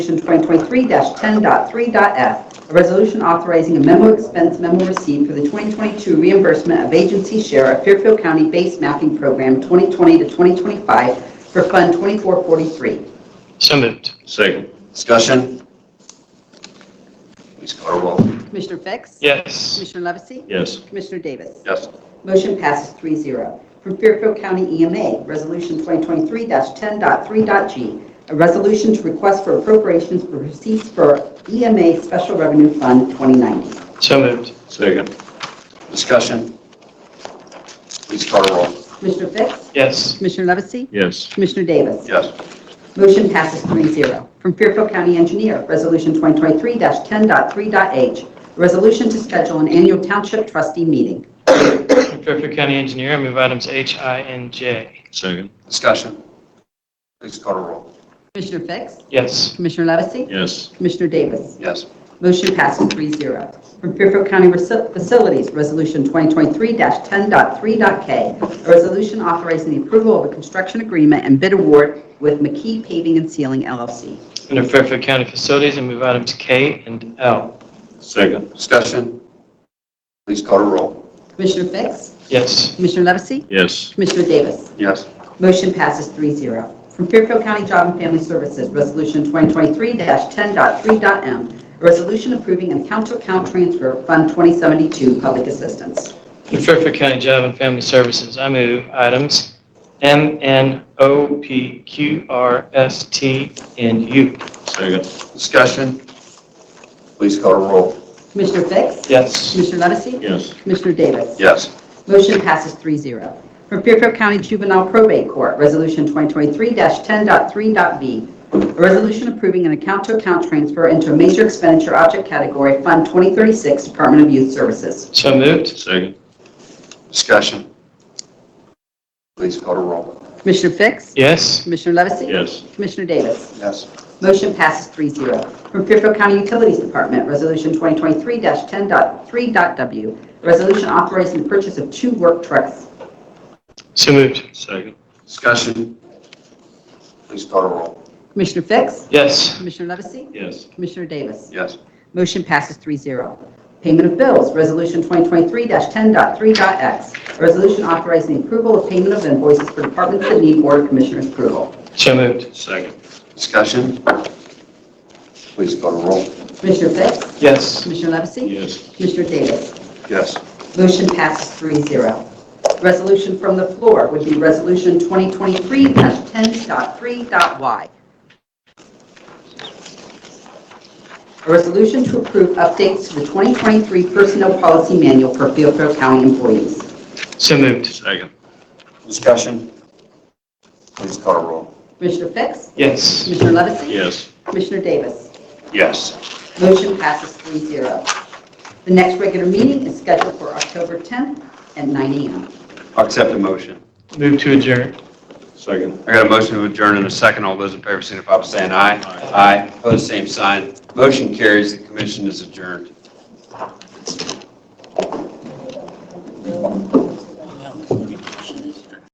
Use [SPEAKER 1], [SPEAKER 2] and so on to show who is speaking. [SPEAKER 1] Resolution 2023-10.3.f, a resolution authorizing a memo expense memo receipt for the 2022 reimbursement of agency share of Fairfield County Base Mapping Program 2020 to 2025 for Fund 2443.
[SPEAKER 2] So moved.
[SPEAKER 3] Second.
[SPEAKER 4] Discussion? Please call roll.
[SPEAKER 1] Commissioner Fix?
[SPEAKER 2] Yes.
[SPEAKER 1] Commissioner Levesey?
[SPEAKER 3] Yes.
[SPEAKER 1] Commissioner Davis?
[SPEAKER 4] Yes.
[SPEAKER 1] Motion passes 3-0. From Fairfield County EMA, Resolution 2023-10.3.g, a resolution to request for appropriations for receipts for EMA Special Revenue Fund 2090.
[SPEAKER 2] So moved.
[SPEAKER 3] Second.
[SPEAKER 4] Discussion? Please call roll.
[SPEAKER 1] Commissioner Fix?
[SPEAKER 2] Yes.
[SPEAKER 1] Commissioner Levesey?
[SPEAKER 3] Yes.
[SPEAKER 1] Commissioner Davis?
[SPEAKER 4] Yes.
[SPEAKER 1] Motion passes 3-0. From Fairfield County Engineer, Resolution 2023-10.3.h, a resolution to schedule an annual Township Trustee Meeting.
[SPEAKER 2] Fairfield County Engineer, I move items H, I, and J.
[SPEAKER 3] Second.
[SPEAKER 4] Discussion? Please call roll.
[SPEAKER 1] Commissioner Fix?
[SPEAKER 2] Yes.
[SPEAKER 1] Commissioner Levesey?
[SPEAKER 3] Yes.
[SPEAKER 1] Commissioner Davis?
[SPEAKER 4] Yes.
[SPEAKER 1] Motion passes 3-0. From Fairfield County Reci- Facilities, Resolution 2023-10.3.k, a resolution authorizing the approval of a construction agreement and bid award with McKee Paving and Sealing LLC.
[SPEAKER 2] Under Fairfield County Facilities, I move items K and L.
[SPEAKER 3] Second.
[SPEAKER 4] Discussion? Please call roll.
[SPEAKER 1] Commissioner Fix?
[SPEAKER 2] Yes.
[SPEAKER 1] Commissioner Levesey?
[SPEAKER 3] Yes.
[SPEAKER 1] Commissioner Davis?
[SPEAKER 4] Yes.
[SPEAKER 1] Motion passes 3-0. From Fairfield County Job and Family Services, Resolution 2023-10.3.m, a resolution approving an account-to-account transfer of Fund 2072 Public Assistance.
[SPEAKER 2] Under Fairfield County Job and Family Services, I move items M, N, O, P, Q, R, S, T, and U.
[SPEAKER 3] Second.
[SPEAKER 4] Discussion? Please call roll.
[SPEAKER 1] Commissioner Fix?
[SPEAKER 2] Yes.
[SPEAKER 1] Commissioner Levesey?
[SPEAKER 3] Yes.
[SPEAKER 1] Commissioner Davis?
[SPEAKER 4] Yes.
[SPEAKER 1] Motion passes 3-0. From Fairfield County Juvenile Probate Court, Resolution 2023-10.3.v, a resolution approving an account-to-account transfer into a major expenditure object category, Fund 2036, Department of Youth Services.
[SPEAKER 2] So moved.
[SPEAKER 3] Second.
[SPEAKER 4] Discussion? Please call roll.
[SPEAKER 1] Commissioner Fix?
[SPEAKER 2] Yes.
[SPEAKER 1] Commissioner Levesey?
[SPEAKER 3] Yes.
[SPEAKER 1] Commissioner Davis?
[SPEAKER 4] Yes.
[SPEAKER 1] Motion passes 3-0. From Fairfield County Utilities Department, Resolution 2023-10.3.w, a resolution authorizing the purchase of two work trucks.
[SPEAKER 2] So moved.
[SPEAKER 3] Second.
[SPEAKER 4] Discussion? Please call roll.
[SPEAKER 1] Commissioner Fix?
[SPEAKER 2] Yes.
[SPEAKER 1] Commissioner Levesey?
[SPEAKER 3] Yes.
[SPEAKER 1] Commissioner Davis?
[SPEAKER 4] Yes.
[SPEAKER 1] Motion passes 3-0. Payment of bills, Resolution 2023-10.3.x, a resolution authorizing the approval of payment of invoices for departments that need Board of Commissioners approval.
[SPEAKER 2] So moved.
[SPEAKER 3] Second.
[SPEAKER 4] Discussion? Please call roll.
[SPEAKER 1] Commissioner Fix?
[SPEAKER 2] Yes.
[SPEAKER 1] Commissioner Levesey?
[SPEAKER 3] Yes.
[SPEAKER 1] Commissioner Davis?
[SPEAKER 4] Yes.
[SPEAKER 1] Motion passes 3-0. Resolution from the floor would be Resolution 2023-10.3.y. A resolution to approve updates to the 2023 Personnel Policy Manual for Fairfield County employees.
[SPEAKER 2] So moved.
[SPEAKER 3] Second.
[SPEAKER 4] Discussion? Please call roll.
[SPEAKER 1] Commissioner Fix?
[SPEAKER 2] Yes.
[SPEAKER 1] Commissioner Levesey?
[SPEAKER 3] Yes.
[SPEAKER 1] Commissioner Davis?
[SPEAKER 4] Yes.
[SPEAKER 1] Motion passes 3-0. The next regular meeting is scheduled for October 10th at 9 a.m.
[SPEAKER 5] I'll accept the motion.
[SPEAKER 2] Move to adjourn.
[SPEAKER 3] Second.
[SPEAKER 5] I got a motion to adjourn in a second. All those in favor signify by saying aye.
[SPEAKER 3] Aye.
[SPEAKER 5] Aye. Opposed, same sign. Motion carries. The commission is adjourned.